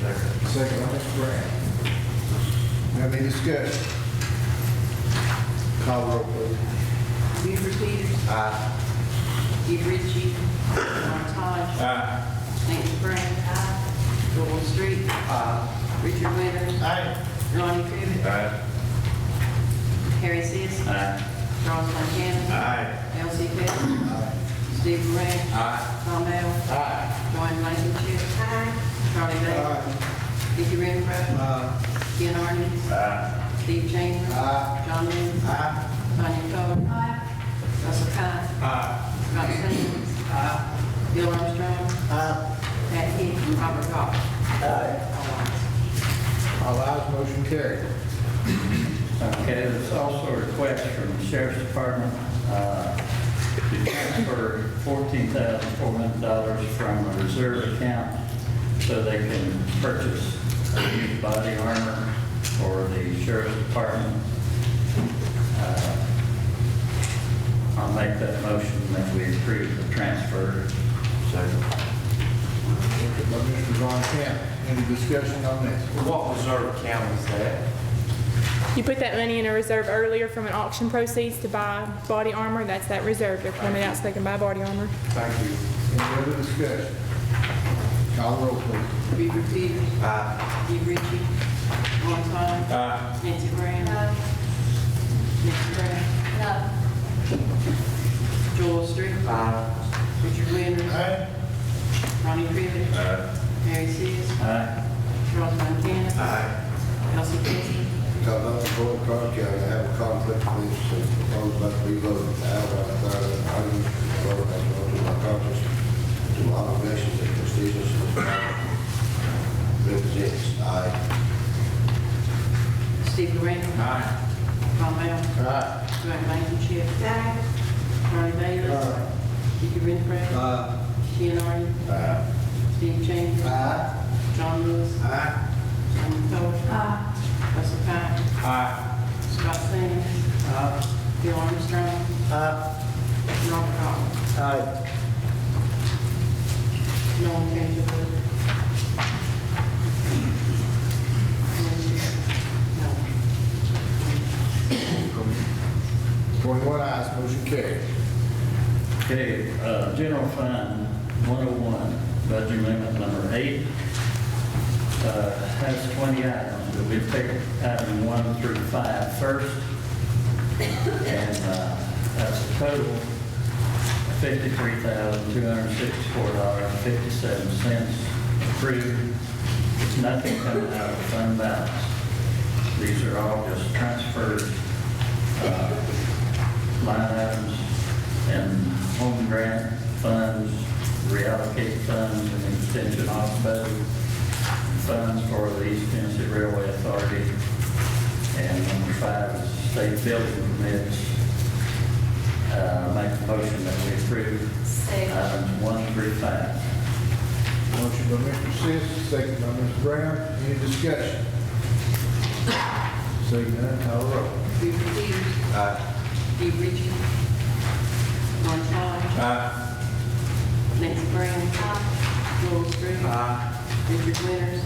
second by Mr. Brown. Have any discussion? Call roll, please. Weaver Peters. Steve Ritchie. Mark Hodge. Nancy Brown. Joel Street. Richard Winters. Ronnie Crivitt. Harry Seas. Charles Montana. Elsie Pittman. Steve Ray. Tom Allen. John Blankenship. Charlie Bailey. Dickie Redrow. Ken Arden. Steve Chambers. John Moon. Tanya Coler. Russell Cott. Scott Sands. Bill Armstrong. Pat Heed. Robert Goff. All ayes, motion carried. Okay, there's also a request from the Sheriff's Department uh, to transfer $14,400 from a reserve account so they can purchase a new body armor for the Sheriff's Department. Uh, I'll make that motion that we approve the transfer. Motion by Mr. Von Camp. Any discussion on this? What reserve account is that? You put that money in a reserve earlier from an auction proceeds to buy body armor. That's that reserve. They're coming out so they can buy body armor. Thank you. Any other discussion? Call roll, please. Weaver Peters. Steve Ritchie. Mark Hodge. Nancy Brown. Nancy Brown. Joel Street. Richard Winters. Ronnie Crivitt. Harry Seas. Aye. Charles Montana. Elsie Pittman. Now, not the board card carry, I have a conflict with this, so it's proposed about reloading the outright authority, I use the vote as well to my conscience, to my obligations and prestigious as well. Represents, I, Steve Ray. Tom Allen. Joanne Blankenship. Ronnie Bailey. Aye. Dickie Redrow. Uh, Ken Arden. Steve Chambers. John Lewis. Sonia Coler. Russell Cott. Scott Sands. Bill Armstrong. Robert Goff. No one came to vote. No. Twenty-one ayes, motion carried. Okay, uh, general fund 101, budget amendment number eight, uh, has 20 items. We'll pick item one through five first. And uh, that's a total of $53,264.57 approved. It's nothing coming out of fund balance. These are all just uh, transferred line items and home grant funds, reallocate funds and extension off budget funds for the East Tennessee Railway Authority. And number five is state building permits. Uh, make a motion that we approve items one through five. Motion by Mr. Sis, second by Mr. Brown. Any discussion? Seeing none, call roll. Rupert Peters. Steve Ritchie. Ron Todd. Nancy Brown. Joel Street. Richard Winters.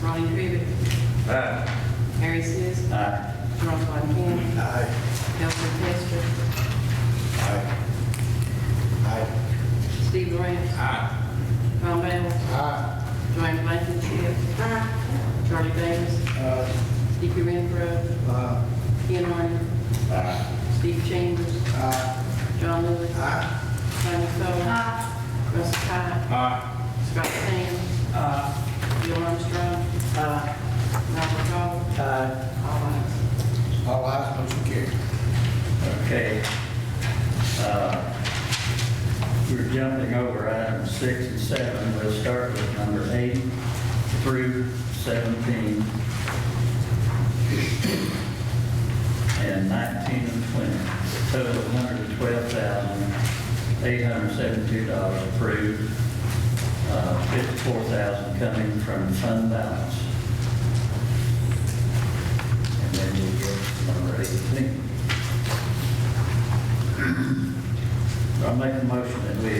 Ronnie Crivitt. Harry Sis. Aye. Ron Von Ken. Elsie Testor. Steve Ray. Ron Bell. Joanne Blankenship. Charlie Davis. Dickie Renfro. Ken Arden. Steve Chambers. John Lewis. Sonia Coler. Russ Cott. Scott Sands. Bill Armstrong. Robert Goff. All ayes. All ayes, motion carried. Okay. Uh, We're jumping over items six and seven. We'll start with number eight through 17. And 19 and 20. Total $112,872 approved. Uh, 54000 coming from fund balance. And then we'll get to number 18. I make a motion that we